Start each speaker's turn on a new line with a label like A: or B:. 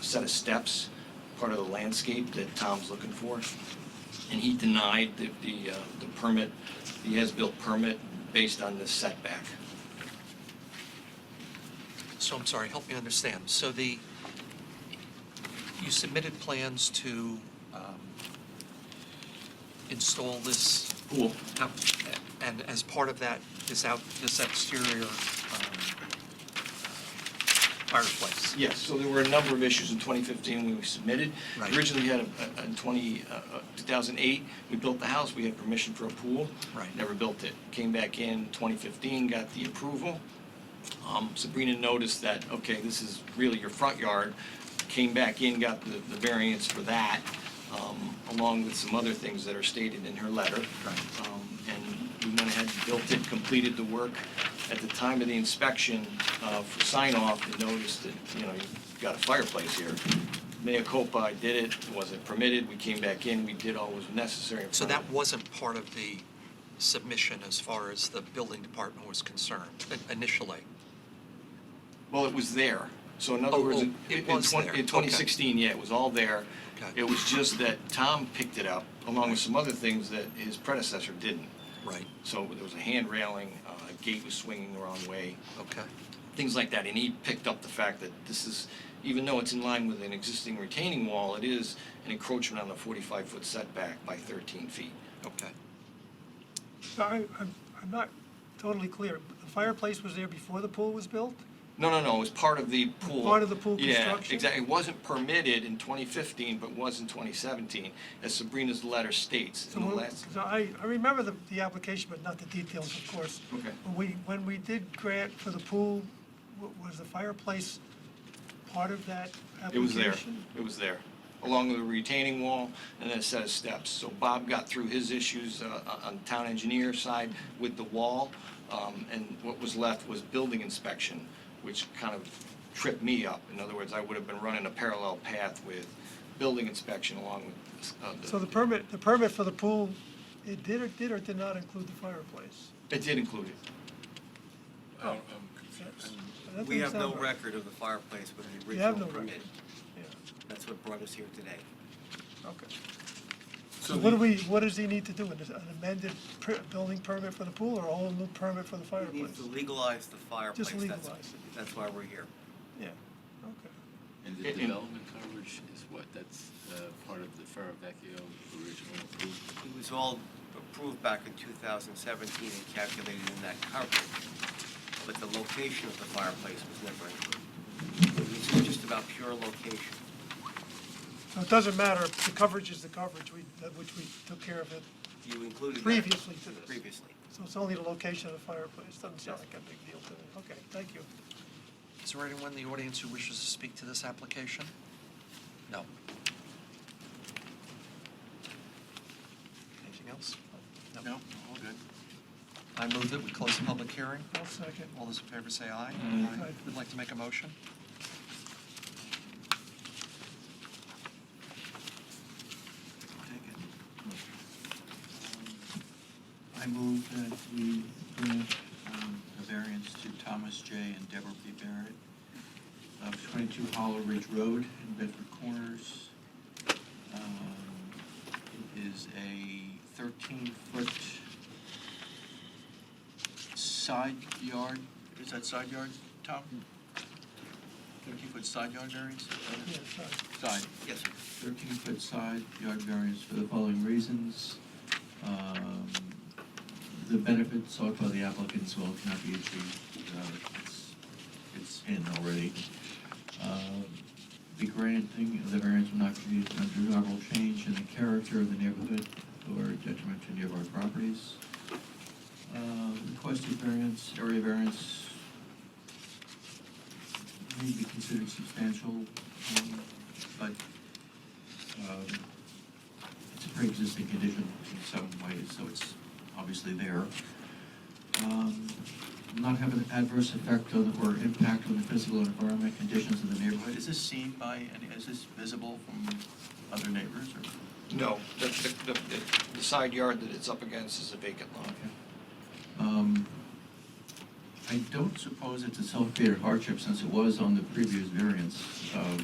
A: set of steps, part of the landscape that Tom's looking for. And he denied the, the, uh, the permit, the as-built permit based on this setback.
B: So I'm sorry, help me understand. So the, you submitted plans to um, install this,
A: Cool.
B: app- and as part of that, this out, this exterior um, fireplace?
A: Yes, so there were a number of issues in 2015 when we submitted.
B: Right.
A: Originally, we had, a- a- in 20, uh, uh, 2008, we built the house, we had permission for a pool.
B: Right.
A: Never built it. Came back in 2015, got the approval. Um, Sabrina noticed that, okay, this is really your front yard. Came back in, got the the variance for that, um, along with some other things that are stated in her letter.
B: Right.
A: Um, And we went ahead and built it, completed the work. At the time of the inspection uh, for sign-off, they noticed that, you know, you've got a fireplace here. Mea culpa, I did it, it wasn't permitted, we came back in, we did all was necessary. in
B: So
A: front
B: that
A: of it.
B: wasn't part of the submission as far as the building department was concerned i- initially?
A: Well, it was there. So in other
B: Oh,
A: words,
B: oh,
A: in
B: it
A: in
B: was
A: twen-
B: there.
A: in
B: Okay.
A: 2016, yeah, it was all there.
B: Okay.
A: It was just that Tom picked it up, along with some other things that his predecessor didn't.
B: Right,
A: So there was a hand railing, uh, a gate was swinging the wrong way,
B: okay,
A: things like that. And he picked up the fact that this is, even though it's in line with an existing retaining wall, it is an encroachment on the 45-foot setback by 13 feet.
B: okay.
C: So I, I'm, I'm not totally clear. The fireplace was there before the pool was built?
A: No, no, no, it was part of the pool.
C: Part of the pool
A: Yeah,
C: construction?
A: exactly. It wasn't permitted in 2015, but was in 2017, as Sabrina's letter states
C: So
A: in the
C: when-
A: last.
C: So I, I remember the, the application, but not the details, of course.
A: Okay.
C: When we, when we did grant for the pool, wa- was the fireplace part of that
A: It was
C: application?
A: there, it was there, along with a retaining wall and then a set of steps. So Bob got through his issues uh, on the town engineer side with the wall, um, and what was left was building inspection, which kind of tripped me up. In other words, I would have been running a parallel path with building inspection along with. uh,
C: So the permit, the permit for the pool, it did or did or did not include the fireplace?
A: It did include it.
D: I don't-
C: That's-
D: I'm
C: that
D: confused. We have
C: doesn't
D: no
C: sound right.
D: record of the fireplace with the
C: You have
D: original
C: no
D: permit.
C: record. Yeah,
D: That's what brought us here today.
C: okay. So what do we, what does he need to do? An amended per- building permit for the pool or a whole new permit for the
D: It
C: fireplace?
D: needs to legalize the fireplace. That's-
C: legalize it.
D: That's why we're here.
C: Yeah, okay.
E: And
A: I-
E: the
A: in-
E: development coverage is what? That's uh, part of the Ferravecchio original approval?
D: It was all approved back in 2017 and calculated in that coverage, but the location of the fireplace was never included. This is just about pure location.
C: So it doesn't matter, the coverage is the coverage, we, that which we took care of it,
D: You included that.
C: Previously to this.
D: Previously.
C: so it's only the location of the fireplace, doesn't sound like a big deal to me. Okay, thank you.
B: Is there anyone in the audience who wishes to speak to this application? No. Anything else?
E: No, all good.
B: I move that we close the public hearing.
C: One second.
B: All those in favor say aye.
C: Aye. Aye.
B: Would like to make a motion?
F: Um, I move that we grant um, a variance to Thomas J. and Deborah B. Barrett of 22 Hollow Ridge Road in Bedford Corners. Um, It is a 13-foot side yard, is that side yard, Tom? 13-foot side yard variance?
C: Yeah, sorry.
F: Side.
D: Yes, sir.
F: 13-foot side yard variance for the following reasons. Um, The benefits sought by the applicant's well cannot be achieved. Uh, It's it's in already. Um, The granting of the variance will not create an undesirable change in the character of the neighborhood or detriment to nearby properties. Um, Requested variance, area variance may be considered substantial, um, but um, It's a pre-existing condition in some ways, so it's obviously there. Um, Not have an adverse effect on, or impact on the physical and environmental conditions of the neighborhood. Is this seen by, any? is this visible from other neighbors or?
A: No, the, the- the, the side yard that it's up against is a vacant lot.
F: Um, I don't suppose it's a self-created hardship since it was on the previous variance. Um,